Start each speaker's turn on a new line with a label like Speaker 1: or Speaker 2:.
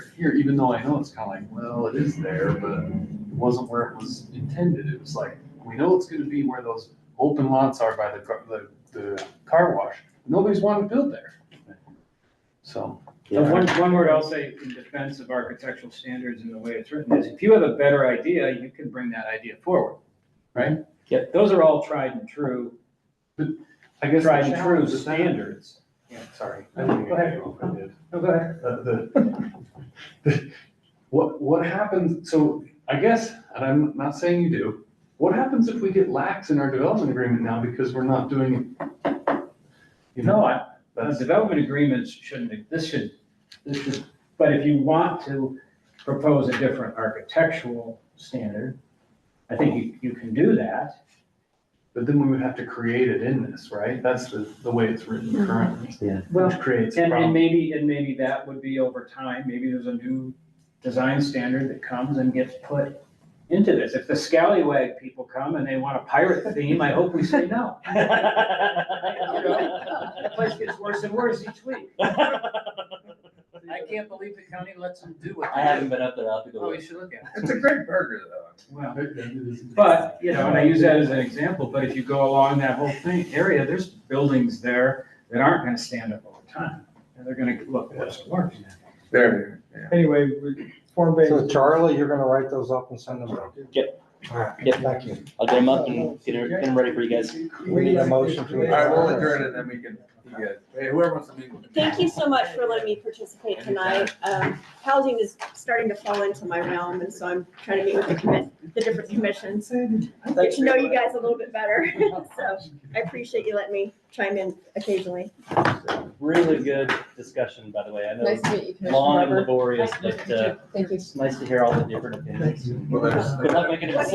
Speaker 1: here, even though I know it's kind of like, well, it is there, but it wasn't where it was intended. It was like, we know it's gonna be where those open lots are by the, car- the, the car wash. Nobody's wanting to build there. So,
Speaker 2: And Uh, one, one word I'll say in defense of architectural standards and the way it's written is, if you have a better idea, you can bring that idea forward.
Speaker 1: Right.
Speaker 2: Yep. Those are all tried and true,
Speaker 1: I guess. the
Speaker 2: tried and true
Speaker 1: challenge is that-
Speaker 2: standards.
Speaker 1: Sorry.
Speaker 2: No, go ahead. No, go ahead.
Speaker 1: What, what happens, so I guess, and I'm not saying you do, what happens if we get lax in our development agreement now because we're not doing it? You know,
Speaker 2: No, I, uh,
Speaker 1: that's-
Speaker 2: development agreements shouldn't, this should, this should, but if you want to propose a different architectural standard, I think you, you can do that.
Speaker 1: but then we would have to create it in this, right? That's the, the way it's written currently, which creates a
Speaker 2: Mm-hmm. And, and
Speaker 1: problem.
Speaker 2: maybe, and maybe that would be over time, maybe there's a new design standard that comes and gets put into this. If the scallywag people come and they want a pirate theme, I hope we say no. You know, The place gets worse and worse each week. I can't believe the county lets them do what
Speaker 3: I
Speaker 2: they
Speaker 3: haven't
Speaker 2: do.
Speaker 3: been up there, I'll have to go.
Speaker 2: Oh,
Speaker 3: look.
Speaker 2: you should look at it.
Speaker 4: It's a great burger though.
Speaker 2: Well, but, you know, and I use that as an example, but if you go along that whole thing, area, there's buildings there that aren't gonna stand up over time. And they're gonna look worse and worse.
Speaker 4: There, yeah.
Speaker 5: Anyway, we- Form B.
Speaker 6: So Charlie, you're gonna write those up and send them out?
Speaker 3: Yep.
Speaker 6: All
Speaker 7: Oh,
Speaker 6: right,
Speaker 3: Yep.
Speaker 6: thank you.
Speaker 3: I'll get them up and get her- get them ready for you guys.
Speaker 6: We need a motion to
Speaker 4: All right, we'll
Speaker 6: adjourn.
Speaker 4: adjourn and then we can, you guys, hey, whoever wants to meet. with me.
Speaker 8: Thank you so much for letting me participate tonight. Um, housing is starting to fall into my realm, and so I'm trying to meet with the commit, the different commissions, get to know you guys a little bit better. So I appreciate you letting me chime in occasionally.
Speaker 3: Really good discussion, by the way. I know
Speaker 7: Nice to meet you,
Speaker 3: it's
Speaker 7: Commissioner
Speaker 3: long and
Speaker 7: Weber.
Speaker 3: laborious,
Speaker 7: Nice to meet
Speaker 3: but
Speaker 7: you.
Speaker 3: uh,
Speaker 7: Thank you.
Speaker 3: it's nice to hear all the different opinions.
Speaker 4: Well,
Speaker 3: Good
Speaker 4: there's-
Speaker 3: luck making a decision.